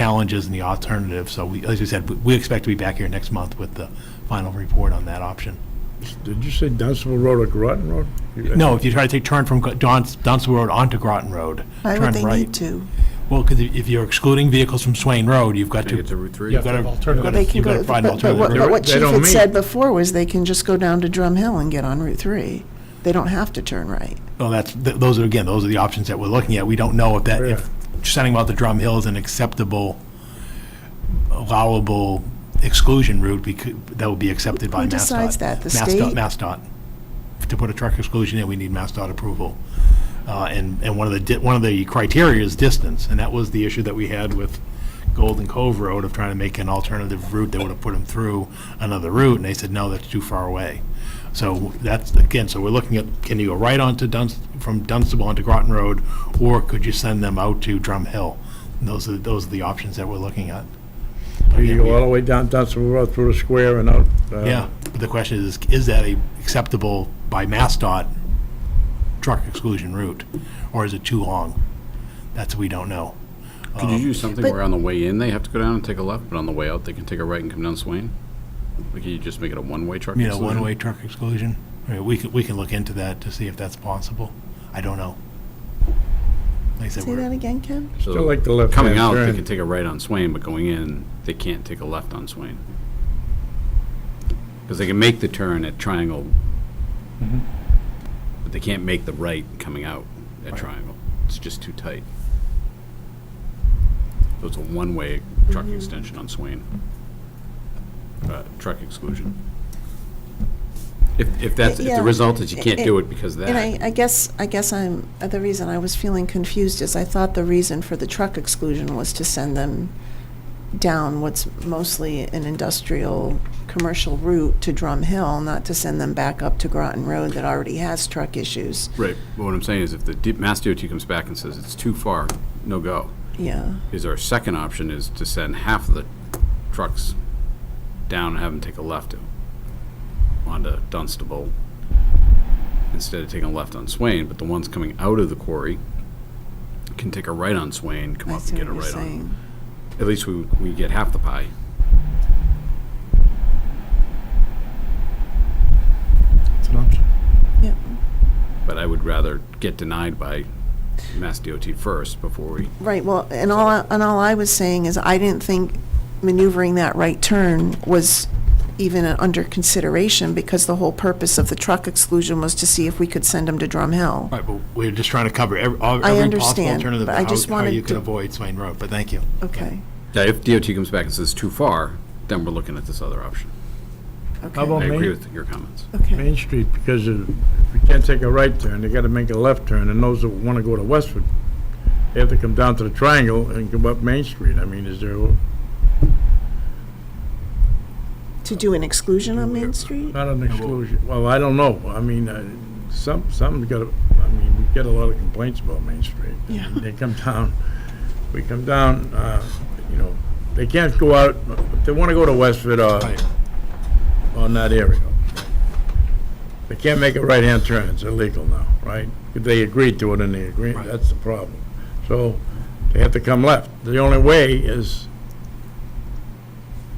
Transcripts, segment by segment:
challenges and the alternative. So we, as we said, we- we expect to be back here next month with the final report on that option. Did you say Dunstable Road or Groton Road? You- No, if you try to take turn from Gro- Don's- Dunstable Road onto Groton Road, Why turn would they need right. to? Well, because if you're excluding vehicles from Swain Road, you've got to, Take it you've to Route 3. got to, Well, they can you've got go, to find an but but what alternative. but what They Chief don't had meet. said before was they can just go down to Drum Hill and get on Route 3. They don't have to turn right. Well, that's, th- those are, again, those are the options that we're looking at. We don't know if that, if sending them out the Drum Hill is an acceptable, allowable exclusion route becau- that would be accepted by MassDOT. Who decides that? The MassDOT- state? MassDOT. To put a truck exclusion in, we need MassDOT approval. Uh, And, and one of the, di- one of the criteria is distance, and that was the issue that we had with Golden Cove Road of trying to make an alternative route that would have put them through another route, and they said, no, that's too far away. So that's, again, so we're looking at, can you go right onto Dunst, from Dunstable onto Groton Road, or could you send them out to Drum Hill? And Those are, those are the options that we're looking at. You go all the way down Dunstable Road through the square and out. uh, Yeah, but Um, the question is, is that a acceptable by MassDOT truck exclusion route, or is it too long? That's, we don't know. Could you do something But- where on the way in, they have to go down and take a left, but on the way out, they can take a right and come down Swain? Like, you just make it a one-way truck? You know, exclusion? one-way truck exclusion? I mean, we can, we can look into that to see if that's possible. I don't know. Like I said, Say we're- that again, Ken? So Still like the left-hand Coming out, they turn. can take a right on Swain, but going in, they can't take a left on Swain. Because they can make the turn at Triangle, Mm-hmm. but they can't make the right coming out at Triangle. It's just too tight. So it's a one-way truck Mm-hmm. extension on Swain. Uh, Truck exclusion. If, if that's, if Yeah. the result is you can't do it because of And that, I, I guess, I guess I'm, uh, the reason I was feeling confused is I thought the reason for the truck exclusion was to send them down what's mostly an industrial, commercial route to Drum Hill, not to send them back up to Groton Road that already has truck issues. right, but what I'm saying is if the D- Mass DOT comes back and says it's too far, no go. Yeah. is our second option is to send half of the trucks down and have them take a left onto Dunstable instead of taking a left on Swain, but the ones coming out of the quarry can take a right on Swain, come I up see and get what a you're right on. saying. At least we, we get half the pie. It's an option. Yep. But I would rather get denied by Mass DOT first before we, Right, well, and all, I- and all I was saying is I didn't think maneuvering that right turn was even under consideration because the whole purpose of the truck exclusion was to see if we could send them to Drum Hill. Right, but we're just trying to cover every, all- every possible understand, alternative, but I just of how- how you wanted can to- avoid Swain Road, but thank you. Okay, Yeah, if DOT comes back and says too far, then we're looking at this other option. How okay, about I agree Main, with your comments. okay. Main Street, because if you can't take a right turn, they gotta make a left turn, and those that wanna go to Westford, they have to come down to the triangle and come up Main Street. I mean, is there, To do an exclusion on Main Street? not an exclusion, well, I don't know. I mean, uh, some, some gotta, I mean, we get a lot of complaints about Main Street. Yeah. They come down, we come down, uh, you know, they can't go out, if they wanna go to Westford or Right. on that area. They can't make a right-hand turn, it's illegal now, right? They agreed to it in the Right. agreement, that's the problem. So they have to come left. The only way is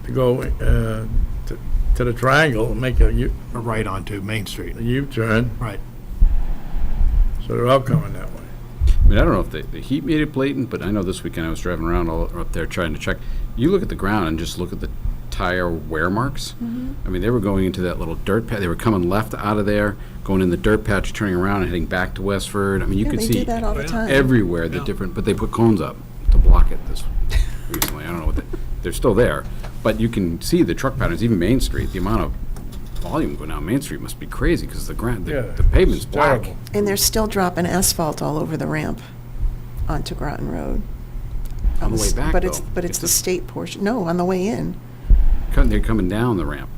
to go uh, to to the triangle, and make a U- Right onto Main Street, a U-turn, right. so they're all coming that way. I mean, I don't know if the, the heat made it blatant, but I know this weekend I was driving around all up there trying to check. You look at the ground and just look at the tire wear marks. Mm-hmm. I mean, they were going into that little dirt patch. They were coming left out of there, going in the dirt patch, turning around and heading back to Westford. I mean, you Yeah, could they see do that all the time. everywhere the different, but they put cones up to block it this recently. I don't know what they, they're still there, but you can see the truck patterns. Even Main Street, the amount of volume going down Main Street must be crazy because the ground, the, Yeah, the pavement's it's black. terrible. And they're still dropping asphalt all over the ramp onto Groton Road. On the way back, But it's, though, but it's it's the a- state portion, no, on the way in. Come- They're coming down the ramp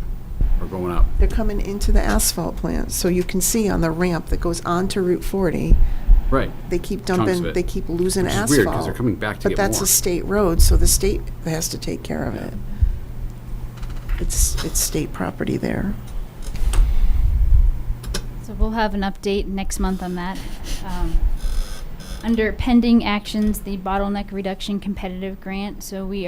or going up. They're coming into the asphalt plant, so you can see on the ramp that goes onto Route 40, Right. they keep Chunks of dumping, it. they keep losing Which asphalt. is weird, 'cause they're coming back to get But that's more. a state road, so the state has to take care of it. It's, it's state property there. So we'll have an update next month on that. Um, Under pending actions, the bottleneck reduction competitive grant, so we